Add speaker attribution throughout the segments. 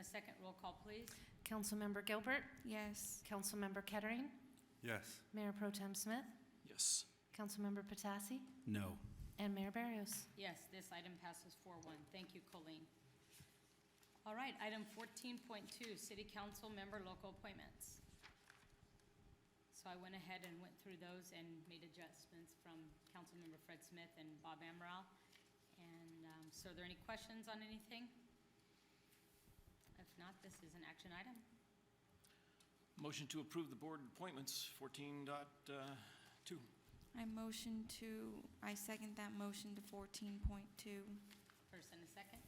Speaker 1: Second roll call, please.
Speaker 2: Councilmember Gilbert,
Speaker 3: Yes.
Speaker 2: Councilmember Kettering,
Speaker 4: Yes.
Speaker 2: Mayor Pro Tem Smith,
Speaker 5: Yes.
Speaker 2: Councilmember Patasi,
Speaker 5: No.
Speaker 2: and Mayor Barrios.
Speaker 1: Yes, this item passes four one. Thank you, Colleen. All right, item fourteen point two, city council member local appointments. So I went ahead and went through those and made adjustments from Councilmember Fred Smith and Bob Amaral. And, um, so are there any questions on anything? If not, this is an action item.
Speaker 5: Motion to approve the board appointments, 14 dot, uh, two.
Speaker 3: I motion to, I second that motion to 14.2.
Speaker 1: First and a second?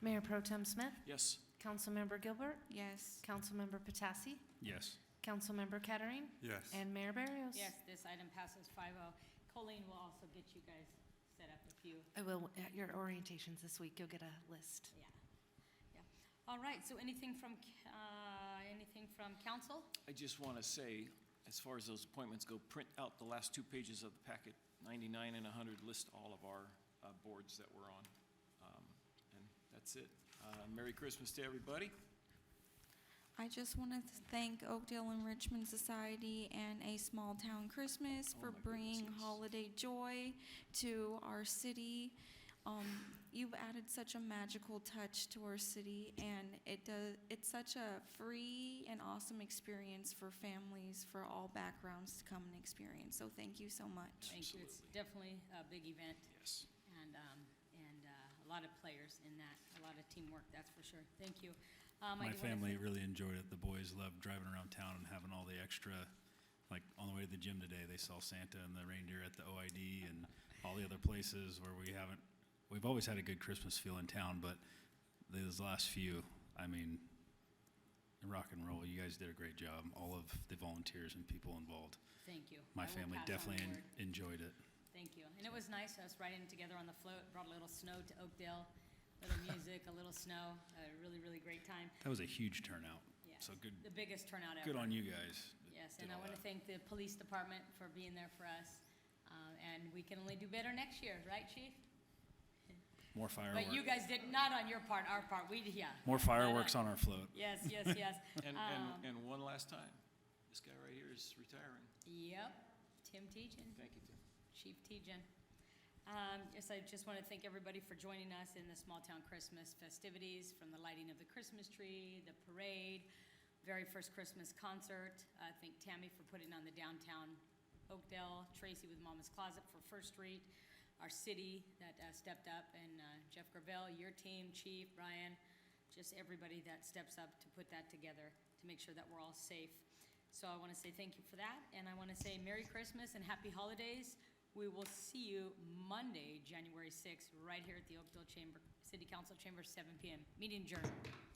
Speaker 2: Mayor Pro Tem Smith,
Speaker 5: Yes.
Speaker 2: Councilmember Gilbert,
Speaker 3: Yes.
Speaker 2: Councilmember Patasi,
Speaker 5: Yes.
Speaker 2: Councilmember Kettering,
Speaker 4: Yes.
Speaker 2: and Mayor Barrios.
Speaker 1: Yes, this item passes five oh. Colleen will also get you guys set up if you
Speaker 2: I will, at your orientations this week, you'll get a list.
Speaker 1: Yeah, yeah. All right, so anything from, c- uh, anything from council?
Speaker 5: I just want to say, as far as those appointments go, print out the last two pages of the packet, 99 and 100, list all of our uh, boards that we're on. Um, And that's it. Uh, Merry Christmas to everybody.
Speaker 3: I just want to thank Oakdale Enrichment Society and A Small Town Christmas
Speaker 5: Oh
Speaker 3: for
Speaker 5: my
Speaker 3: bringing
Speaker 5: goodness, yes.
Speaker 3: holiday joy to our city. Um, you've added such a magical touch to our city, and it does. It's such a free and awesome experience for families for all backgrounds to come and experience. So thank you so much.
Speaker 1: Thank you. It's definitely
Speaker 5: Absolutely.
Speaker 1: a big event
Speaker 5: Yes.
Speaker 1: and, um, and, uh, a lot of players in that, a lot of teamwork, that's for sure. Thank you. Um, I
Speaker 6: My
Speaker 1: do wanna
Speaker 6: family
Speaker 1: thank-
Speaker 6: really enjoyed it. The boys loved driving around town and having all the extra, like on the way to the gym today, they saw Santa and the reindeer at the OID and all the other places where we haven't, we've always had a good Christmas feel in town, but these last few, I mean, rock and roll, you guys did a great job. All of the volunteers and people involved.
Speaker 1: Thank you. I
Speaker 6: My
Speaker 1: will
Speaker 6: family
Speaker 1: pass on the
Speaker 6: definitely en-
Speaker 1: word.
Speaker 6: enjoyed it.
Speaker 1: Thank you. And it was nice, us riding together on the float, brought a little snow to Oakdale, little music, a little snow, a really, really great time.
Speaker 6: That was a huge turnout.
Speaker 1: Yes.
Speaker 6: So good,
Speaker 1: The biggest turnout ever.
Speaker 6: good on you uh, guys. that
Speaker 1: Yes,
Speaker 6: did
Speaker 1: and I
Speaker 6: all
Speaker 1: want to
Speaker 6: that.
Speaker 1: thank the police department for being there for us. Uh, And we can only do better next year, right, chief?
Speaker 6: More
Speaker 1: But you
Speaker 6: fireworks,
Speaker 1: guys did, not on your part, our part, we, yeah.
Speaker 6: more fireworks on our float.
Speaker 1: Yes, yes, yes.
Speaker 5: And,
Speaker 1: Um,
Speaker 5: and, and one last time, this guy right here is retiring.
Speaker 1: Yep, Tim Teachin.
Speaker 5: Thank you, Tim.
Speaker 1: Chief Tejan. Um, Yes, I just want to thank everybody for joining us in the Small Town Christmas festivities, from the lighting of the Christmas tree, the parade, very first Christmas concert. Uh, Thank Tammy for putting on the downtown Oakdale, Tracy with Mama's Closet for First Street, our city that uh, stepped up, and uh, Jeff Gravel, your team, Chief, Brian, just everybody that steps up to put that together, to make sure that we're all safe. So I want to say thank you for that, and I want to say Merry Christmas and Happy Holidays. We will see you Monday, January 6th, right here at the Oakdale Chamber, City Council Chamber, 7 PM. Meeting adjourned.